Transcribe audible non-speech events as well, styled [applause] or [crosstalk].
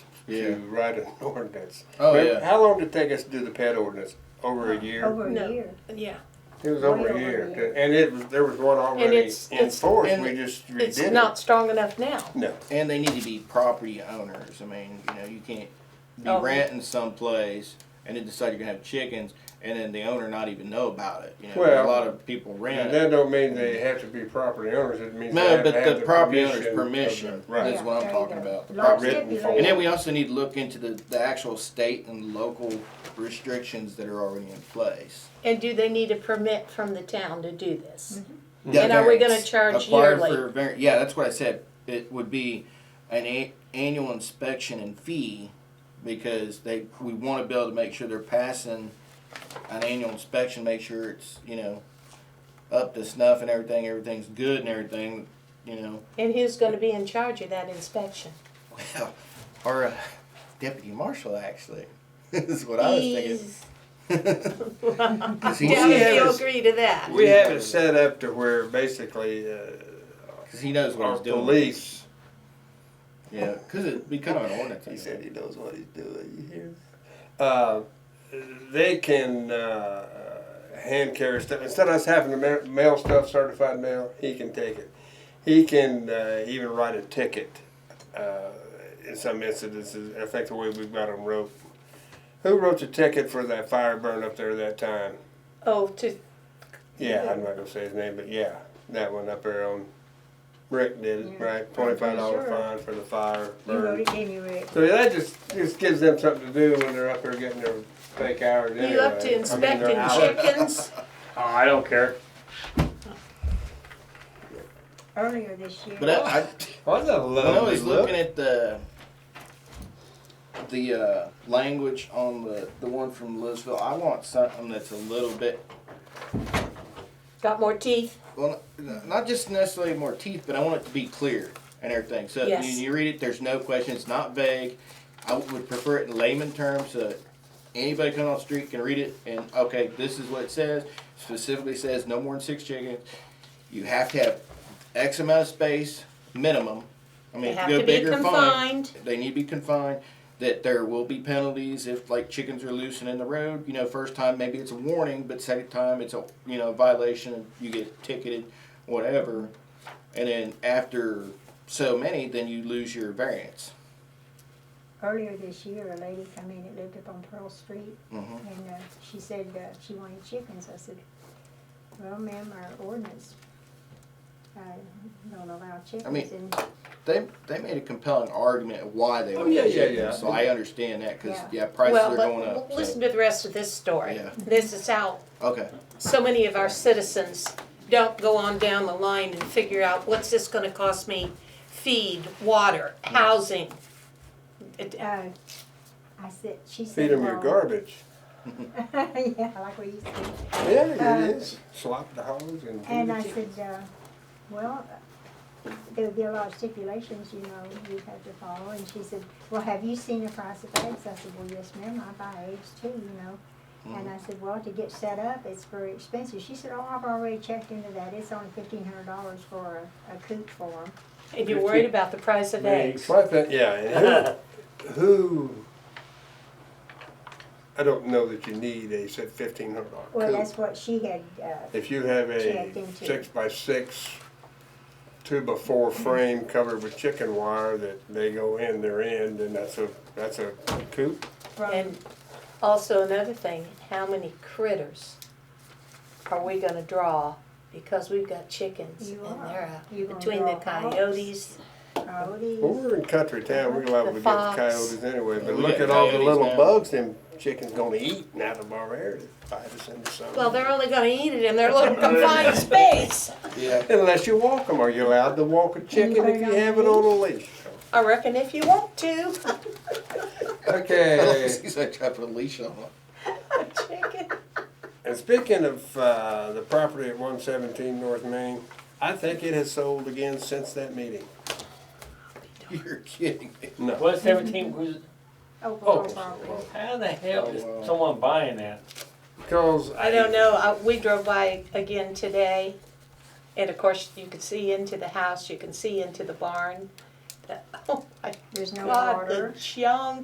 Yeah. to write an [laughs] ordinance. Oh, Remember- yeah. How long did it take us to do the pet ordinance? Over a year? Over No. a year. Yeah, It was way over over a a year. year. And it was, there was one already it's- in it's- force, and we just it's redid not it. strong enough now. No, And they need to be property owners. I mean, you know, you can't be Oh. renting someplace and then decide you're gonna have chickens and then the owner not even know about it. You know, Well, a lot of people and rent. that don't mean they have to be property owners, it means they No, have to but have the the property permission. owner's of permission the- Right. is what I'm talking about. The Long property- written Longevity. form. And then we also need to look into the, the actual state and local restrictions that are already in place. And do they need a permit from the town to do this? Yeah, And are we gonna variance. charge Apply yearly? for var- Yeah, that's what I said. It would be an a- annual inspection and fee because they, we wanna be able to make sure they're passing an annual inspection, make sure it's, you know, up to snuff and everything, everything's good and everything, you know. And who's gonna be in charge of that inspection? Well, [laughs] our uh, deputy marshal actually [laughs] is what I was thinking. He's, [laughs] [laughs] 'Cause he- doubt if Yeah. he'll agree to that. We have it set up to where basically, uh, 'cause he knows what our he's doing. police. Yeah, because it'd be kind of an ordinance. I think. he knows what he's doing, you hear? Uh, they can, uh, hand carry stuff, instead of us having to ma- mail stuff certified mail, he can take it. He can, uh, even write a ticket, uh, in some instances, I think the way we've got them wrote. Who wrote the ticket for that fire burn up there that time? Oh, to, Yeah, I'm not gonna say his name, but yeah, that one up there on, Rick did it, Yeah, right, twenty-five dollar sure. fine for the fire You burn. wrote it, didn't you, Rick? So that just just gives them something to do when they're up there getting their fake hours. Anyway. you up I to mean, inspecting they're out. [laughs] chickens? Oh, I don't care. Earlier this year. But I, I, What a When I lovely was look. looking at the the uh, language on the the one from Louisville, I want something that's a little bit Got more teeth? well, n- not just necessarily more teeth, but I want it to be clear and everything. So Yes. when you read it, there's no question. It's not vague. I would prefer it in layman terms so that anybody coming on the street can read it and okay, this is what it says. Specifically says no more than six chickens. You have to have X amount of space minimum. I mean, They if have you go to be bigger, fine. confined. they need to be confined that there will be penalties if like chickens are loose and in the road you know first time maybe it's a warning but second time it's a you know violation and you get ticketed whatever and then after so many then you lose your variance Earlier this year, a lady come in that lived up on Pearl Street, hmm and uh, she said uh, she wanted chickens. I said, well, ma'am, our ordinance, uh, don't allow chickens. mean- And they they made a compelling argument of why they Oh, were yeah, yeah, chickens, yeah. so i understand that because Yeah. yeah. prices Well, are but going up l- so- listen to the rest of this story. Yeah. This is how okay so many of our citizens don't go on down the line and figure out, what's this gonna cost me? Feed, water, housing. It- Uh, I said, she said. Feed them your "Well," garbage. [laughs] Yeah, like we used to. Yeah, it Uh, is. Slop the hogs and. feed And the I chickens. said, uh, well, there would be a lot of stipulations, you know, you'd have to follow. And she said, well, have you seen the price of eggs? I said, well, yes, ma'am, I buy eggs too, you know. And I said, well, to get set up, it's very expensive. She said, oh, I've already checked into that. It's only fifteen hundred dollars for a, a coop for 'em." And you're worried about the price of eggs. Well, I think- yeah, and who, who, I don't know that you need a, said fifteen hundred dollar Well, coop. that's what she had, uh, If you have a Checked into. six by six, two by four frame covered with chicken wire that they go in, they're in, then that's a, that's a coop. from, And also another thing, how many critters are we gonna draw? Because we've got chickens and You are. they're out You're gonna between the draw hogs. coyotes. oh, Well, these, we're in country town, we're liable to The get fox. coyotes anyway, but We look at got all the Oh, coyotes little now. bugs them chickens gonna eat out of our area, bite us in the summer. Well, they're only gonna eat it in their little confined space. [laughs] yeah Unless you walk them, are you allowed to walk a chicken if you have it on a leash? I reckon if you want to, [laughs] [laughs] Okay. he's like trying to put a leash on him. chicken. And speaking of uh, the property at 117 North Main, I think it has sold again since that meeting. [laughs] you're kidding me No. What seventeen was? overall property. How the hell is Oh, wow. someone buying that? Because I don't know, I, we drove by again today, and of course, you can see into the house, you can see into the barn. The- Oh my There's no God, water. the junk